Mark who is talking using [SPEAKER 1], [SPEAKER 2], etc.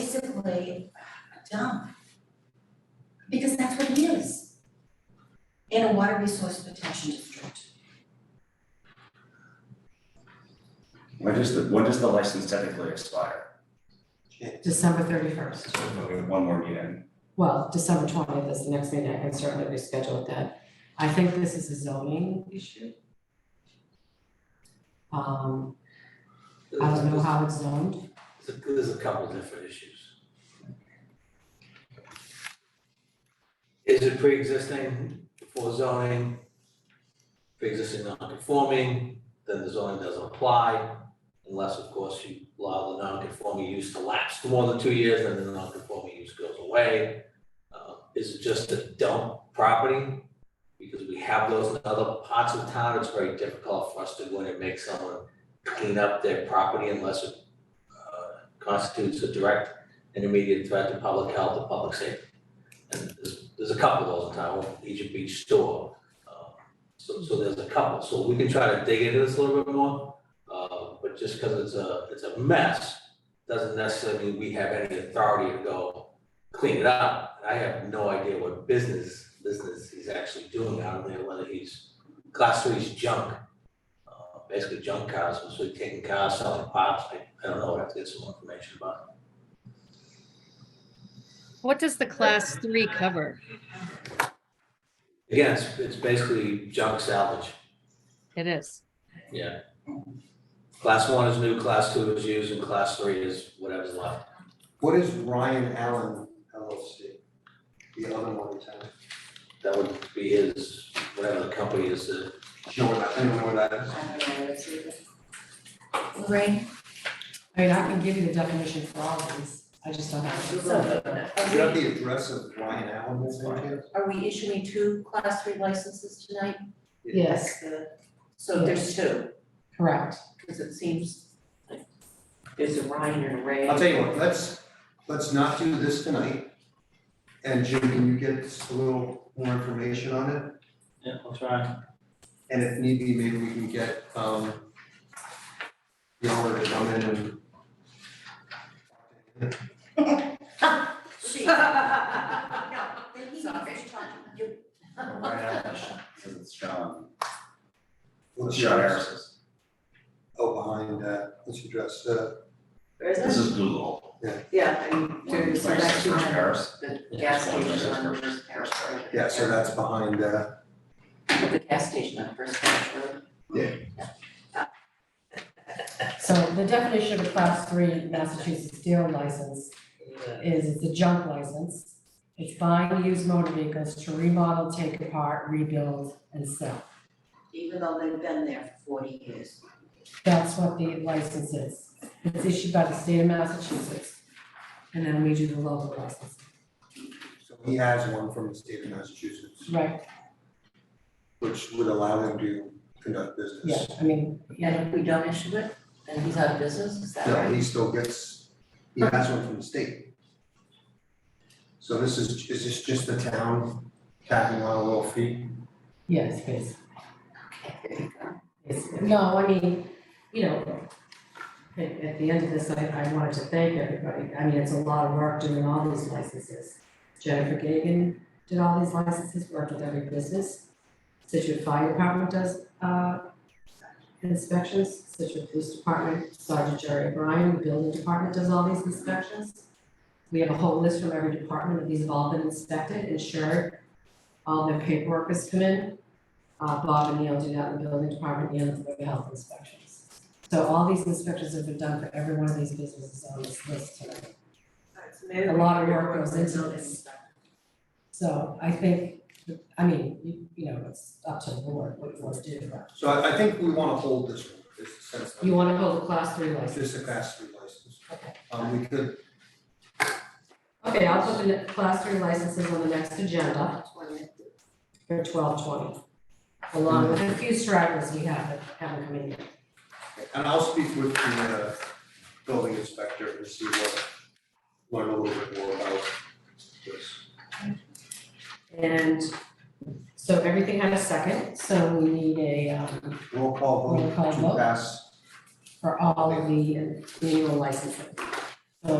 [SPEAKER 1] basically a dump. Because that's what it is. In a water resource protection district.
[SPEAKER 2] When does the, when does the license typically expire?
[SPEAKER 3] December thirty-first.
[SPEAKER 2] So we have one more meeting.
[SPEAKER 3] Well, December twentieth is the next meeting, I can certainly reschedule that. I think this is a zoning issue. Um, I don't know how it's zoned,
[SPEAKER 4] There's a- There's a couple different issues. Is it pre-existing before zoning? Pre-existing non-conforming, then the zoning doesn't apply unless, of course, you allow the non-conforming use to lapse for more than two years, then the non-conforming use goes away. Uh, Is it just a dump property? Because we have those in other parts of town, it's very difficult for us to go in and make someone clean up their property unless it uh, constitutes a direct and immediate threat to public health or public safety. And there's, there's a couple of those in town, one Egypt Beach store, uh, so, so there's a couple, so we can try to dig into this a little bit more. Uh, but just because it's a, it's a mess, doesn't necessarily mean we have any authority to go clean it up. I have no idea what business, business he's actually doing out of there, whether he's, class three's junk, uh, basically junk cars, so we're taking cars, selling parts, I, I don't know, I have to get some more information about
[SPEAKER 5] What does the class three cover?
[SPEAKER 4] it. Again, it's, it's basically junk salvage,
[SPEAKER 5] It is.
[SPEAKER 4] yeah. Class one is new, class two is used, and class three is whatever's left.
[SPEAKER 6] What is Ryan Allen LLC? The other one in town?
[SPEAKER 4] That would be his, whatever the company is, uh,
[SPEAKER 6] Do you know what that, anyone know what that is?
[SPEAKER 1] I don't know, it's either. Lorraine?
[SPEAKER 3] I mean, I can give you the definition for all of these, I just don't have it.
[SPEAKER 1] So,
[SPEAKER 6] Is that the address of Ryan Allen that's in town?
[SPEAKER 1] are we issuing two class three licenses tonight?
[SPEAKER 3] Yes,
[SPEAKER 1] The- So there's two,
[SPEAKER 3] correct,
[SPEAKER 1] because it seems like there's a Ryan and a Ray.
[SPEAKER 6] I'll tell you what, let's, let's not do this tonight. And Jim, can you get us a little more information on it?
[SPEAKER 4] yeah, I'll try.
[SPEAKER 6] And if need be, maybe we can get, um, Yara to come in and.
[SPEAKER 1] You-
[SPEAKER 2] Because it's John,
[SPEAKER 6] Well,
[SPEAKER 2] it's
[SPEAKER 6] it's
[SPEAKER 2] John
[SPEAKER 6] yours.
[SPEAKER 2] Harris's.
[SPEAKER 6] Oh, behind, uh, what's your address, uh,
[SPEAKER 1] Where is
[SPEAKER 2] This
[SPEAKER 1] it?
[SPEAKER 2] is Google.
[SPEAKER 1] Yeah, and
[SPEAKER 2] One
[SPEAKER 1] there's
[SPEAKER 2] twenty-six
[SPEAKER 1] actually
[SPEAKER 2] First
[SPEAKER 1] one,
[SPEAKER 2] Harris.
[SPEAKER 1] the
[SPEAKER 4] Yeah,
[SPEAKER 1] gas
[SPEAKER 2] one
[SPEAKER 1] station on
[SPEAKER 2] twenty-six
[SPEAKER 1] First Parish Road.
[SPEAKER 6] yeah, so that's behind, uh,
[SPEAKER 1] The gas station on First Parish Road.
[SPEAKER 3] so the definition of a class three Massachusetts dealer license is it's a junk license. It's buying used motor vehicles to remodel, take apart, rebuild, and sell.
[SPEAKER 1] Even though they've been there for forty years.
[SPEAKER 3] That's what the license is. It's issued by the state of Massachusetts. And then we do the local license.
[SPEAKER 6] so he has one from the state of Massachusetts,
[SPEAKER 3] Right,
[SPEAKER 6] which would allow him to conduct business.
[SPEAKER 3] yeah, I mean, yeah,
[SPEAKER 1] And if we don't issue it, then he's out of business, is that
[SPEAKER 6] No,
[SPEAKER 1] right?
[SPEAKER 6] he still gets, he has one from the state. So this is, is this just the town tacking on a little fee?
[SPEAKER 3] yes, please.
[SPEAKER 1] There you go.
[SPEAKER 3] It's, no, I mean, you know, at, at the end of this, I, I wanted to thank everybody. I mean, it's a lot of work doing all these licenses. Jennifer Gagan did all these licenses, worked with every business. Situate Fire Department does, uh, inspections, Situate Police Department, Sergeant Jerry O'Brien, the Building Department does all these inspections. We have a whole list from every department, and these have all been inspected, insured, all their paperwork has come in. Uh, Bob and Neil do that in the building department, Neil does the health inspections. So all these inspections have been done for every one of these businesses on this list tonight. A lot of work goes into this. So I think, I mean, you, you know, it's up to the board what you want to do. but-
[SPEAKER 6] So I, I think we wanna hold this one, is the sense of-
[SPEAKER 3] You want to hold a class three license?
[SPEAKER 6] Just a class three license.
[SPEAKER 3] Okay.
[SPEAKER 6] Um, we could,
[SPEAKER 3] Okay, I'll put the ne- class three licenses on the next agenda for twelve twenty. Along with a few stragglers we have that haven't come in yet.
[SPEAKER 6] and I'll speak with the, uh, building inspector and see what, learn a little bit more about this.
[SPEAKER 3] And so everything had a second, so we need a, um,
[SPEAKER 6] Roll call
[SPEAKER 3] Roll
[SPEAKER 6] vote
[SPEAKER 3] call
[SPEAKER 6] to
[SPEAKER 3] vote.
[SPEAKER 6] pass,
[SPEAKER 3] for all of the annual licenses.